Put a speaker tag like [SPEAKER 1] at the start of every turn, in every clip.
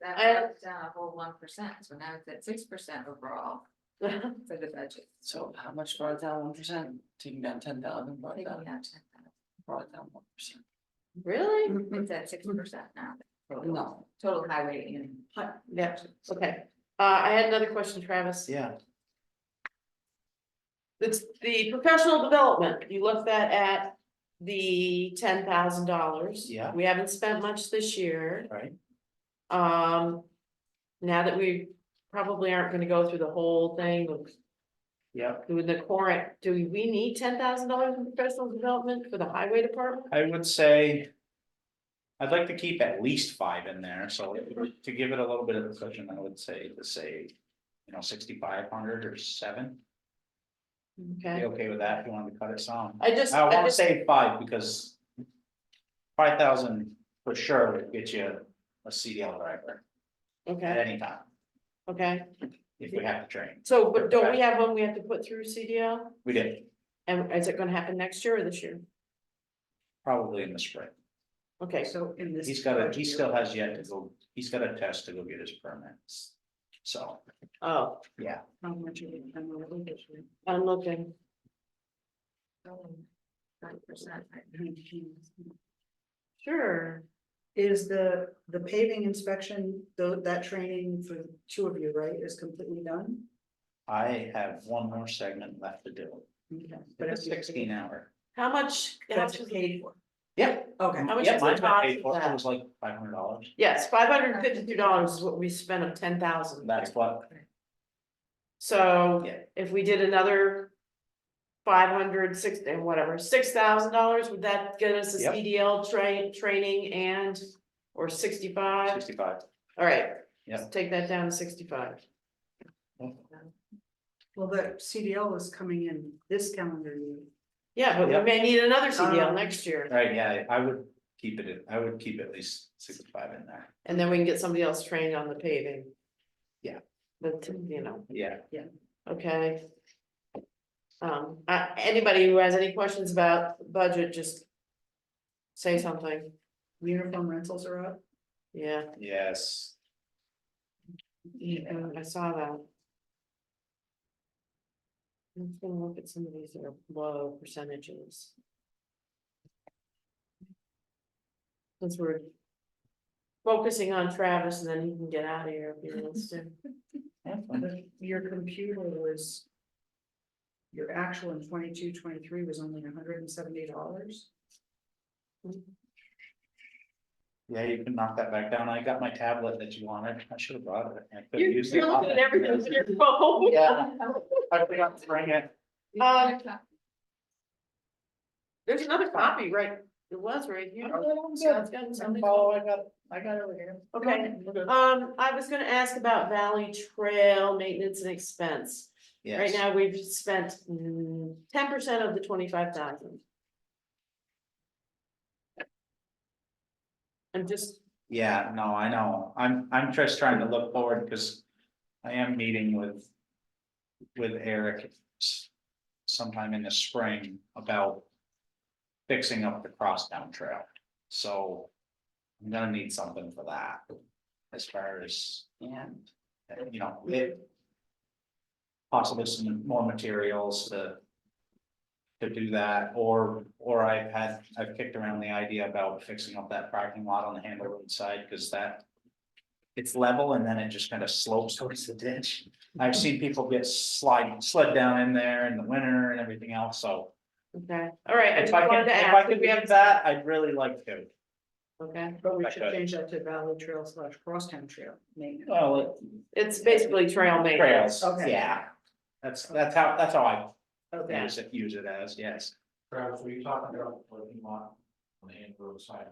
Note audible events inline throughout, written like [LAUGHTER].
[SPEAKER 1] That
[SPEAKER 2] I-
[SPEAKER 1] brought it down a whole one percent, so now it's at six percent overall for the budget.
[SPEAKER 3] So how much brought it down one percent, taking down ten thousand, brought it
[SPEAKER 1] Taking
[SPEAKER 3] down,
[SPEAKER 1] out 10,000.
[SPEAKER 3] brought it down one percent.
[SPEAKER 2] [LAUGHS] Really?
[SPEAKER 1] It's at six percent now,
[SPEAKER 3] No,
[SPEAKER 1] total highway and.
[SPEAKER 2] Yeah, okay. Uh, I had another question, Travis.
[SPEAKER 3] yeah,
[SPEAKER 2] It's the professional development. You left that at the ten thousand dollars.
[SPEAKER 3] Yeah.
[SPEAKER 2] We haven't spent much this year.
[SPEAKER 3] right,
[SPEAKER 2] Um, now that we probably aren't gonna go through the whole thing with
[SPEAKER 3] yep.
[SPEAKER 2] doing the current, do we need ten thousand dollars in professional development for the highway department?
[SPEAKER 4] I would say. I'd like to keep at least five in there, so if- to give it a little bit of cushion, I would say, to say. You know, sixty-five hundred or seven, be
[SPEAKER 2] Okay,
[SPEAKER 4] okay with that if you wanted to cut it some.
[SPEAKER 2] I just,
[SPEAKER 4] I
[SPEAKER 2] I
[SPEAKER 4] wanna
[SPEAKER 2] just,
[SPEAKER 4] say five because. Five thousand for sure would get you a CDL driver at
[SPEAKER 2] okay,
[SPEAKER 4] any time,
[SPEAKER 2] okay.
[SPEAKER 4] if we have to train,
[SPEAKER 2] So, but don't we have one we have to put through CDL?
[SPEAKER 4] we did,
[SPEAKER 2] And is it gonna happen next year or this year?
[SPEAKER 4] probably in the spring.
[SPEAKER 2] Okay,
[SPEAKER 1] So in this.
[SPEAKER 4] He's got a, he still has yet to go, he's got a test to go get his permits, so.
[SPEAKER 2] oh,
[SPEAKER 1] How much are we, I'm a little
[SPEAKER 2] I'm looking.
[SPEAKER 1] percent.
[SPEAKER 2] Sure.
[SPEAKER 5] Is the, the paving inspection, though, that training for the two of you, right, is completely done?
[SPEAKER 4] I have one more segment left to do,
[SPEAKER 5] Okay,
[SPEAKER 4] but it's
[SPEAKER 5] if you-
[SPEAKER 4] sixteen hour.
[SPEAKER 2] How much? how
[SPEAKER 5] That's
[SPEAKER 2] much is-
[SPEAKER 5] paid for.
[SPEAKER 4] Yeah.
[SPEAKER 5] Okay,
[SPEAKER 2] How much
[SPEAKER 4] Yeah,
[SPEAKER 2] is the
[SPEAKER 4] mine got
[SPEAKER 2] cost
[SPEAKER 4] paid
[SPEAKER 2] of
[SPEAKER 4] for.
[SPEAKER 2] that?
[SPEAKER 4] It was like five hundred dollars,
[SPEAKER 2] Yes, five hundred and fifty-two dollars is what we spent of ten thousand.
[SPEAKER 4] that's what,
[SPEAKER 2] So
[SPEAKER 4] Yeah.
[SPEAKER 2] if we did another. Five hundred, six, and whatever, six thousand dollars, would that get us a
[SPEAKER 4] Yep.
[SPEAKER 2] CDL train, training and, or sixty-five?
[SPEAKER 4] sixty-five,
[SPEAKER 2] Alright.
[SPEAKER 4] Yep.
[SPEAKER 2] Take that down to sixty-five.
[SPEAKER 5] well, the CDL is coming in this calendar year.
[SPEAKER 2] Yeah, but we
[SPEAKER 4] Yep.
[SPEAKER 2] may need another CDL
[SPEAKER 5] Um,
[SPEAKER 2] next year,
[SPEAKER 4] right, yeah, I would keep it, at- I would keep at least sixty-five in there,
[SPEAKER 2] and then we can get somebody else trained on the paving.
[SPEAKER 4] Yeah.
[SPEAKER 2] But, you know.
[SPEAKER 4] yeah.
[SPEAKER 2] Okay. Um, uh, anybody who has any questions about budget, just. Say something,
[SPEAKER 5] Uniform rentals are up.
[SPEAKER 2] yeah,
[SPEAKER 4] Yes,
[SPEAKER 2] yeah, I saw that. I'm just gonna look at some of these that are low percentages. Since we're. Focusing on Travis and then he can get out of here if he wants to.
[SPEAKER 5] The- Your computer was. Your actual in 22, 23 was only hundred and seventy dollars.
[SPEAKER 4] yeah, you can knock that back down, I got my tablet that you wanted, I should have brought it. I could've
[SPEAKER 2] You're,
[SPEAKER 4] used it.
[SPEAKER 2] you're looking at
[SPEAKER 4] [LAUGHS]
[SPEAKER 2] everything with your phone.
[SPEAKER 4] Yeah, I forgot to bring it,
[SPEAKER 1] Um,
[SPEAKER 2] Uh, There's another copy, right? It was right here. Sounds good. Something-
[SPEAKER 4] oh, I got, I got it over here.
[SPEAKER 2] Okay, um, I was gonna ask about Valley Trail maintenance and expense. Right
[SPEAKER 4] Yes.
[SPEAKER 2] now, we've spent mm, ten percent of the twenty-five thousand. I'm just,
[SPEAKER 4] Yeah, no, I know. I'm, I'm just trying to look forward because I am meeting with, with Eric s- sometime in the spring about fixing up the crosstown trail. So I'm gonna need something for that as far as, and, you know, it possibly some more materials to to do that, or, or I've had, I've kicked around the idea about fixing up that parking lot on the Handle Road side, because that. It's level and then it just kind of slopes towards the ditch. I've seen people get slide, slid down in there in the winter and everything else, so.
[SPEAKER 2] okay, all right, I just
[SPEAKER 4] If I
[SPEAKER 2] wanted
[SPEAKER 4] can,
[SPEAKER 2] to
[SPEAKER 4] if I
[SPEAKER 2] ask if
[SPEAKER 4] could
[SPEAKER 2] we have,
[SPEAKER 4] have that, I'd really like to.
[SPEAKER 2] okay,
[SPEAKER 5] But we
[SPEAKER 4] That
[SPEAKER 5] should
[SPEAKER 4] cut it.
[SPEAKER 5] change that to Valley Trail slash Crosstown Trail maintenance.
[SPEAKER 4] Well,
[SPEAKER 2] it's basically trail maintenance.
[SPEAKER 4] trails,
[SPEAKER 5] Okay.
[SPEAKER 4] yeah. That's, that's how, that's how I
[SPEAKER 5] Okay,
[SPEAKER 4] use it, use it as, yes.
[SPEAKER 6] Travis, were you talking about the parking lot on the hand roadside?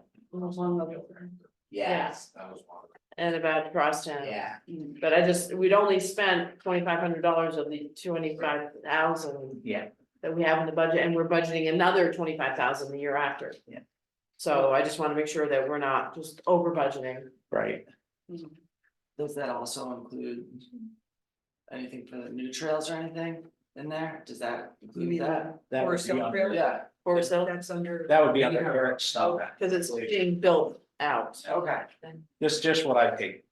[SPEAKER 2] Yes.
[SPEAKER 6] That was one.
[SPEAKER 2] And about crosstown.
[SPEAKER 4] Yeah.
[SPEAKER 5] Mm,
[SPEAKER 2] But I just, we'd only spent twenty-five hundred dollars of the twenty-five thousand
[SPEAKER 4] Yeah,
[SPEAKER 2] that we have in the budget, and we're budgeting another twenty-five thousand the year after.
[SPEAKER 4] Yeah.
[SPEAKER 2] So I just wanna make sure that we're not just over budgeting.
[SPEAKER 4] right.
[SPEAKER 3] Does that also include? Anything for the new trails or anything in there, does that
[SPEAKER 5] You
[SPEAKER 3] include
[SPEAKER 5] mean
[SPEAKER 3] that?
[SPEAKER 5] that,
[SPEAKER 4] That would
[SPEAKER 5] Forest Hill
[SPEAKER 4] be, on-
[SPEAKER 5] Trail?
[SPEAKER 3] Yeah,
[SPEAKER 2] For ourselves,
[SPEAKER 5] that's under.
[SPEAKER 4] that would be under
[SPEAKER 5] Yeah.
[SPEAKER 4] Eric's stuff.
[SPEAKER 2] cause it's being built out.
[SPEAKER 3] okay,
[SPEAKER 4] That's just what I paid